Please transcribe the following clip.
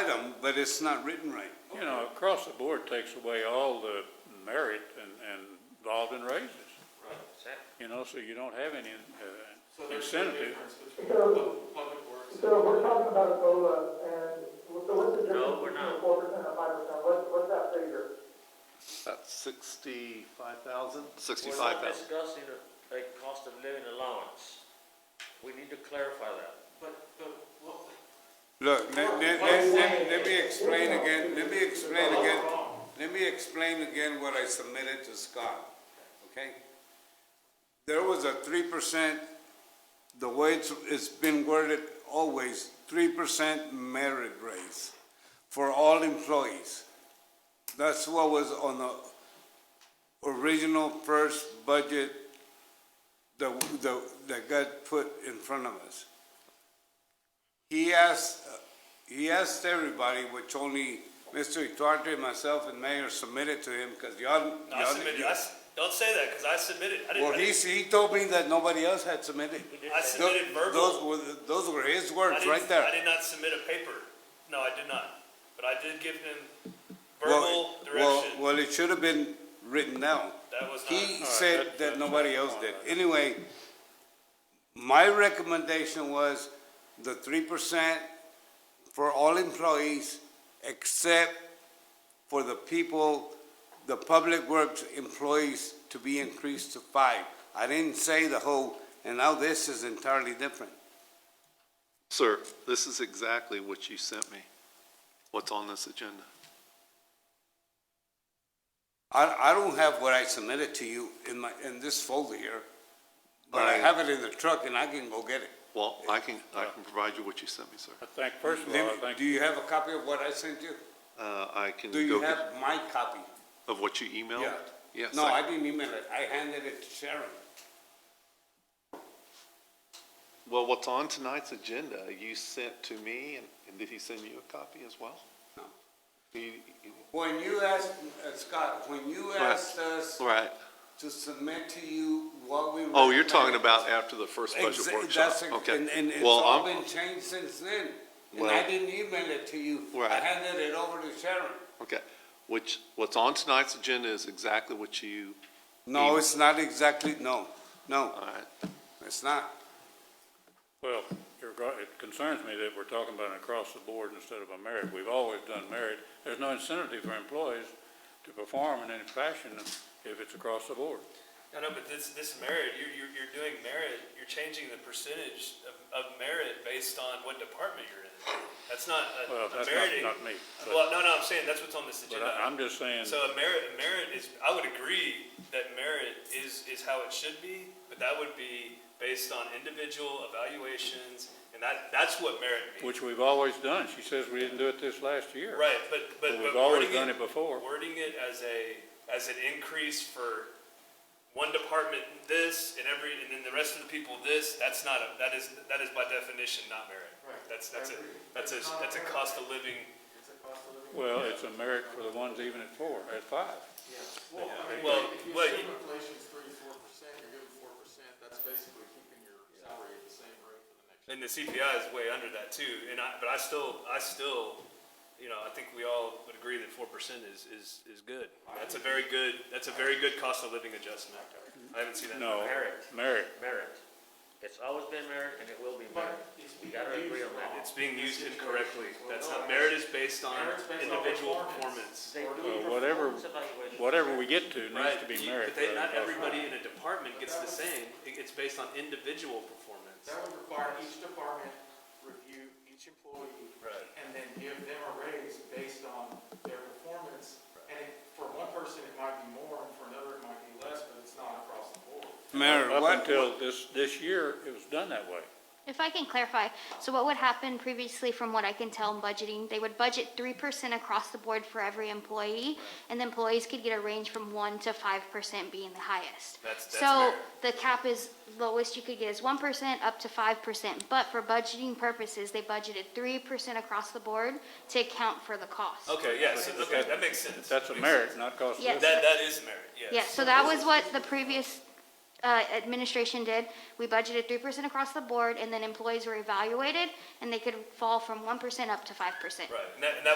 item, but it's not written right. You know, across the board takes away all the merit and, and involved in raises. You know, so you don't have any uh, So there's a incentive. difference between pub- public works. So we're talking about Ebola and, so what's the difference No, we're between not. four percent and five percent? What, what's that figure? About sixty-five thousand? We're not discussing a, a cost of living allowance. We need to clarify that. But, but, well, Look, let, let, let- let- let me explain again, let me explain again, let me explain again what I submitted to Scott, okay? There was a three percent, the way it's, it's been worded always, three percent merit raise for all employees. That's what was on the original first budget that, that, that got put in front of us he asked, he asked everybody, which only Mr. Ituarte, myself, and Mayor submitted to him, because y'all. I y'all- submitted, I s- don't say that, because I submitted, I Well, didn't, he, he told me that nobody else had submitted. I Tho- submitted verbal. Those were, those were his I words, didn't- right I there. did not submit a paper, no, I did not, but I did give them Well, verbal well- direction, Well, it should have been written down. that was He not, said that that- that's nobody not else on did. that. Anyway, my recommendation was the three percent for all employees except for the people, the public works employees to be increased to five. I didn't say the whole, and now this is entirely different. Sir, this is exactly what you sent me, what's on this agenda. I, I don't have what I submitted to you in my, in this folder here, but I Right. have it in the truck and I can go get it. Well, uh, I can, I can provide you what you sent me, sir. I think, first of all, Let I me- think Do you have a copy of what I sent you? Uh, I can Do you go have get, my copy? of what you emailed? Yeah. Yes. No, I didn't email it. I handed it to Sharon. Well, what's on tonight's agenda, you sent to me, and, and did he send you a copy as well? No. He- he- When you asked, uh, Scott, when you Right. asked us Right. to submit to you what we. Oh, you're talking recommended- about after the first budget Exa- workshop? that's ex- Okay. And, and it's Well, all I'm- been changed since then. And I Well- didn't email it to you. I Right. handed it over to Sharon. Okay, which, what's on tonight's agenda is exactly what you, No, it's not exactly, no, no, all right, it's not. Well, you're go- it concerns me that we're talking about an across the board instead of a merit. We've always done merit. There's no incentive for employees to perform in any fashion if it's across the board. no, no, but this, this merit, you're, you're, you're doing merit, you're changing the percentage of, of merit based on what department you're in. That's not a, Well, a that's merit. not, not me, but, Well, no, no, I'm saying that's what's on this but agenda. I- I'm just saying, So a merit, a merit is, I would agree that merit is, is how it should be, but that would be based on individual evaluations, and that, that's what merit means. which we've always done. She says we didn't do it this last year. Right, but, but. But but we've always wording done it before. Wording it as a, as an increase for one department this, and every, and then the rest of the people this, that's not a, that is, that is by definition not merit. Right. That's, that's a, I agree. that's a, It's not that's a merit. cost of living. It's a cost of living. Well, it's a merit for the ones even at four, at five. Yeah. Well, I mean, Well, if you well, assume you- inflation's three, four percent, you're giving four percent, that's basically keeping your salary at the same rate for the next. And the CPI is way under that too, and I, but I still, I still, you know, I think we all would agree that four percent is, is, is good. That's a very good, that's a very good cost of living adjustment. I haven't seen that. in a No, while. Merit. merit. Merit. It's always been merit and it will be merit. But it's We being gotta agree used on that. wrong. It's being used incorrectly. That's Well, not, no. merit is based on Merit's based on individual performance. performance. They do Well, whatever- performance evaluations. Whatever we get to needs Right, to be you- merit. but they, rather not than- everybody in a department gets the same. It- It's based on individual performance. That would require each department review each employee. Right. And then give them a raise based on their performance. And it- for one person, it might be more, and for another, it might be less, but it's not across the board. Mayor, Up what, until this, this year, it was done that way. If I can clarify, so what would happen previously, from what I can tell in budgeting, they would budget three percent across the board for every employee, and the employees could get a range from one to five percent being the highest. That's- that's So fair. the cap is, lowest you could get is one percent up to five percent, but for budgeting purposes, they budgeted three percent across the board to account for the cost. Okay, yeah, so, okay, that makes sense. That's a Makes merit, sense. not cost of Yes. living. That, that is merit, yes. Yeah, so that was what the previous uh, administration did. We budgeted 3% across the board, and then employees were evaluated, and they could fall from 1% up to 5%. Right, and that, and that